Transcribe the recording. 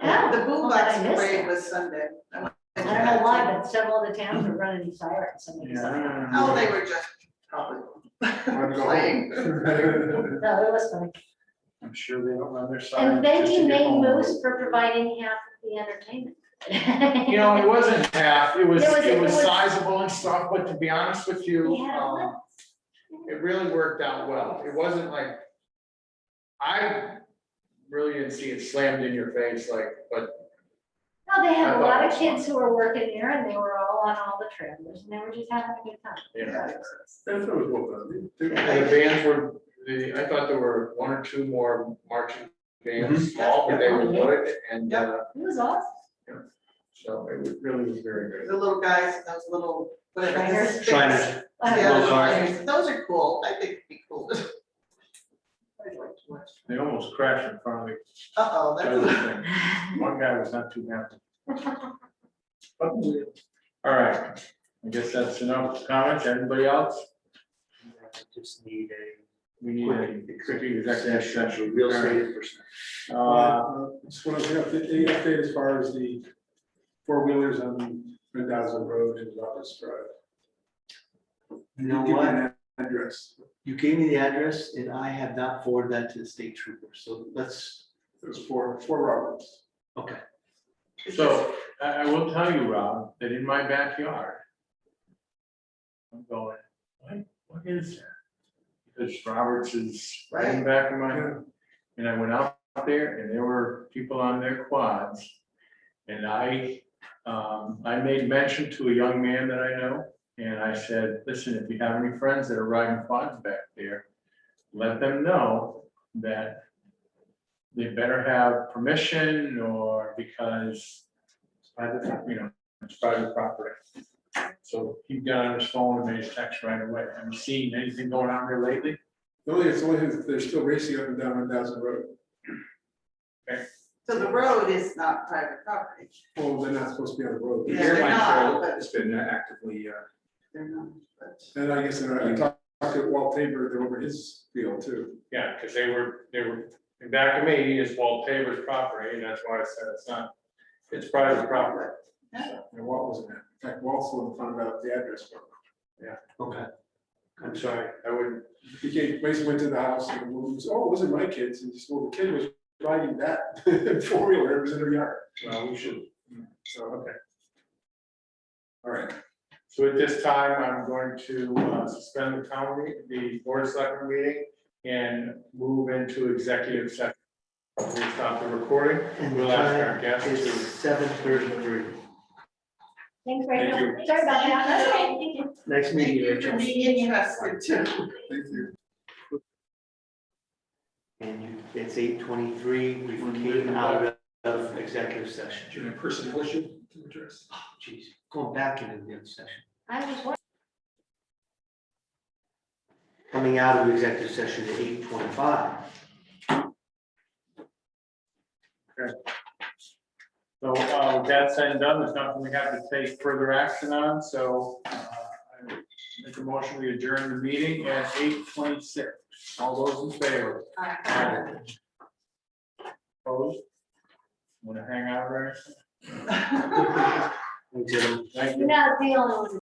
The boombox parade I was Sunday. I went to don't know why, but several of the towns are running sirens, uh, somebody's siren. that. Oh, they were just probably playing. I'm No, it was funny. sure they don't run their sign. And thank you, Maine Moose, for providing half of the entertainment. You know, it wasn't half, it was, It was- it it was was- sizable and stuff, but to be honest with you, We had a um, it really worked out well. It wasn't like, I really didn't see it slammed in your face like, but No, they had I a thought lot it of was kids who were working there and they were all on all the trailers and they were just having a good time. you know. That's what it was. The bands were, the, I thought there were one or two more marching bands, small, but they were good and, uh, It was awesome. so it was- really was very good. The little guys, and those little. whatever, Shriners. Shriners. Yeah, I Little those cars. shriners. Those are cool. I think it'd be cool. I'd like to watch. They almost crashed in front of the Uh-oh, other that's. thing. know. One guy was not too happy. But, All right, I guess that's enough comments. Everybody else? Just need a. We need a quick executive session. Real estate person. Uh, Just want to update, any update as far as the four wheelers on Mendoza Road and Loftus Drive? You know Give me what? an Address, You gave me the address and I have not forwarded that to the state trooper. So let's, there's four, four Roberts. okay. So I, I will tell you, Rob, that in my backyard, I'm going, what, what is that? Because Roberts is right in the back of my home. And I went out there and there were people on their quads. And I, um, I made mention to a young man that I know, and I said, listen, if you have any friends that are riding quads back there, let them know that they better have permission or because it's private, pro- you know, it's private property. So he got on his phone and made his text right away. Have you seen anything going on here lately? The only, it's only, they're still racing up and down Mendoza Road. So the road is not private property. Well, they're not supposed to be on the road. Yeah, they're not, but It's been actively, uh, they're not, but. And I guess, and I talked to Walt Tabor, they're over his field too. Yeah, because they were, they were, and back to me, it's Walt Tabor's property, and that's why I said it's not, it's private property. And Walt wasn't there. In fact, Walt's the one that found out the address. for him. Okay. I'm sorry. I wouldn't, He came, basically went to the house and moved, oh, it wasn't my kids. And he said, well, the kid was riding that four wheeler, it was in their yard. well, we should. So, okay. All right. So at this time, I'm going to uh, suspend the town meeting, the board of selectmen meeting, and move into executive session. We'll stop the recording. And the We'll ask time our guests is to, seven thirty-three. Thanks, Rachel. Thank Sorry about that. That's okay. Thank you. Next Thank meeting. you for Rachel. being interested too. Thank you. And you, it's eight twenty-three. We came out of executive session. Ah, a personnel issue to address. Jeez, going back into the other session. I was Coming out of executive session at eight twenty-five. so uh, with that said and done, there's nothing we have to take further action on, so uh, I make a motion, we adjourn the meeting at eight twenty-six. All those in favor? Aye. Opposed? Want to hang out or anything? Thanks, everyone. Thank you. not the only one.